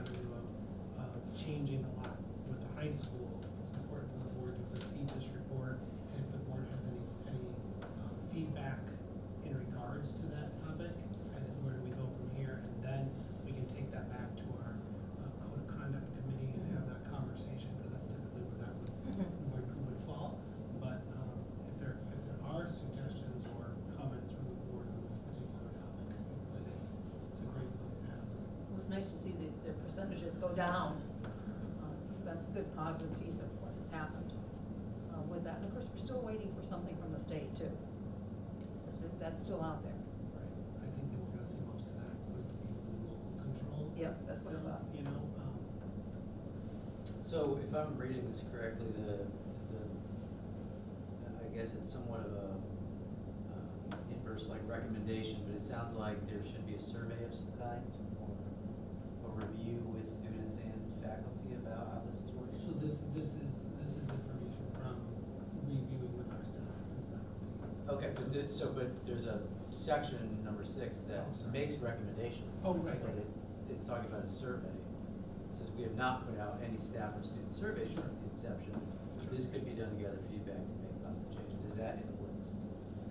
uh, changing a lot with the high school. It's important for the board to receive this report, and if the board has any, any um, feedback in regards to that topic, and then where do we go from here, and then we can take that back to our uh, code of conduct committee and have that conversation, because that's typically where that would, Mm-hmm. would, would fall. But, um, if there, if there are suggestions or comments from the board on this particular topic, I think that it- it's a great place to have them. It was nice to see the, their percentages go down. Uh, So that's a good positive piece of what has happened uh, with that. And of course, we're still waiting for something from the state too. 'Cause that- That's still out there. Right, I think that we're gonna see most of that, it's going to be within local control. Yep, that's what I still, thought. You know, um, So if I'm reading this correctly, the, the, I guess it's somewhat of a uh, inverse like recommendation, but it sounds like there should be a survey of some kind or a review with students and faculty about how this is so working. this, this is, this is information from reviewing with our staff and faculty. Okay, but the- so, but there's a section, number six, that Oh, sorry. makes recommendations. Oh, right. But it's, it's talking about a survey. It says we have not put out any staff or student surveys since the inception. This could be done to gather feedback to make positive changes. Is that in the works?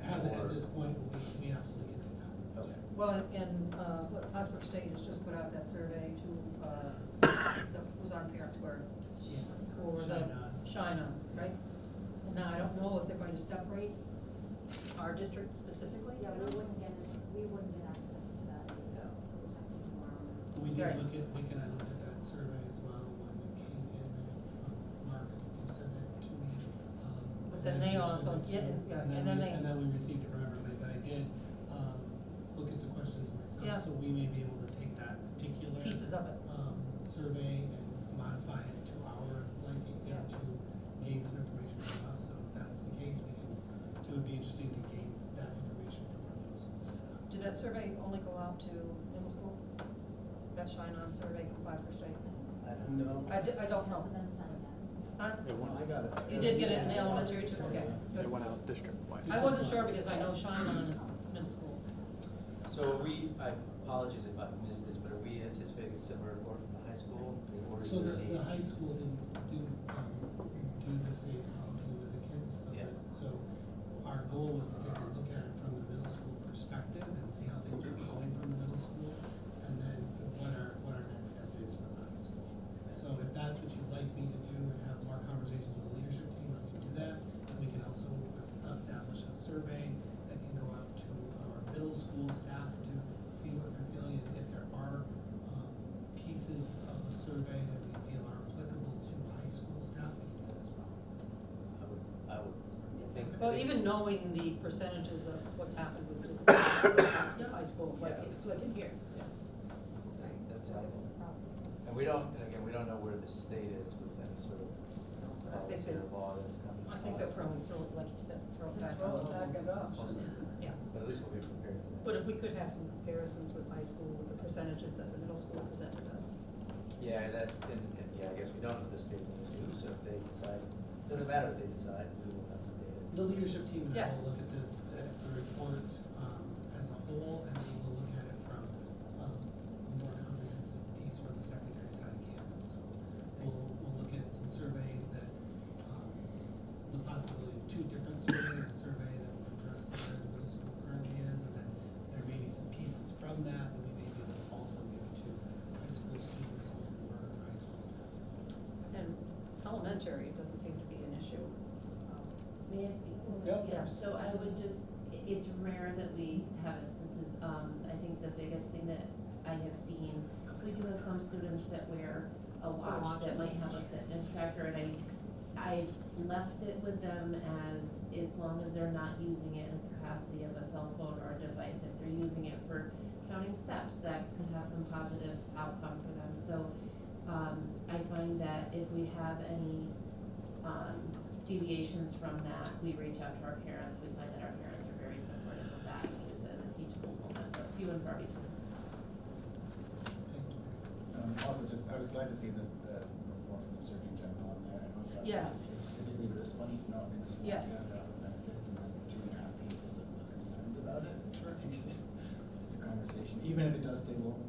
As at Or- this point, we, we absolutely can do that. Okay. Well, and- and uh, what Plattsburgh State has just put out that survey to, uh, the- who's on Parent Square. Yes. Or Should the not. Shine On, right? And now I don't know if they're going to separate our district specifically. Yeah, we wouldn't get, we wouldn't get access to that, No. so we'd have to do our own. We did Right. look at, we can, I looked at that survey as well when it came in, and, um, Mark, I think you sent it to me. um, But and then they we also sent it to- get- yeah, and then we- they- And then we received it from everybody, but I did, um, look at the questions Yeah. myself, so we may be able to take that particular. Pieces of it. Um, survey and modify it to our liking, you know, Yeah. to gain some information from us, so if that's the case, we can, it would be interesting to gain that information from our middle school staff. Did that survey only go out to middle school? That Shine On survey from Plattsburgh State? I don't know. No, I di- I don't know. Hasn't been sent yet. Huh? it went, I got it. You did get it in the elementary too, okay. It good. went out district-wide. I wasn't sure because I know Shine On is middle school. So are we, I apologize if I missed this, but are we anticipating a similar report from the high school? Or is So there the, any? the high school didn't, didn't, um, do the same policy with the kids, so, Yeah. that- so our goal was to take a look at it from the middle school perspective and see how things are going from the middle school, and then what our, what our next step is for the high school. So if that's what you'd like me to do and have more conversations with the leadership team, I can do that, and we can also establish a survey that can go out to our middle school staff to see what they're feeling, and if there are, um, pieces of the survey that we feel are applicable to high school staff, we can do that as well. I would, I would think. Well, even knowing the percentages of what's happened with disabilities in high school, like it's like in here. Yeah. That's So it was helpful. a problem. And we don't, and again, we don't know where the state is with any sort of I think policy they're, or law that's coming. I think they'll probably throw it, like you said, throw it back. on. Possibly. Yeah. But at least we'll be prepared for that. But if we could have some comparisons with high school, with the percentages that the middle school presented us. Yeah, that, and, and, yeah, I guess we don't know what the state's gonna do, so if they decide, doesn't matter if they decide, we will have some The data. leadership team and I Yeah. will look at this, at the report, um, as a whole, and we will look at it from, um, a more comprehensive piece for the secondary side of campus. So we'll, we'll look at some surveys that, um, the possibility of two different surveys, a survey that will address where the middle school currently is, and then there may be some pieces from that that we may be able to also give to high school students and/or high school staff. And elementary, it doesn't seem to be an issue. Um, May I speak to that? Yeah, of Yeah. course. So I would just, i- it's rare that we have instances, um, I think the biggest thing that I have seen, we do have some students that wear a watch that watches. might have a fitness tracker, and I, I left it with them as, as long as they're not using it in the capacity of a cell phone or a device, if they're using it for counting steps, that could have some positive outcome for them, so, um, I find that if we have any, um, deviations from that, we reach out to our parents, we find that our parents are very supportive of that, and use it as a teachable moment, but few and far between. Thank you. Um, also, just, I was glad to see the, the report from the Surgeon General on there, I know it's not Yes. specifically, but it's funny to know, I mean, there's one Yes. standout for benefits and then two and a half people that were concerns about it. Sure. I think it's just, it's a conversation, even if it does stay local,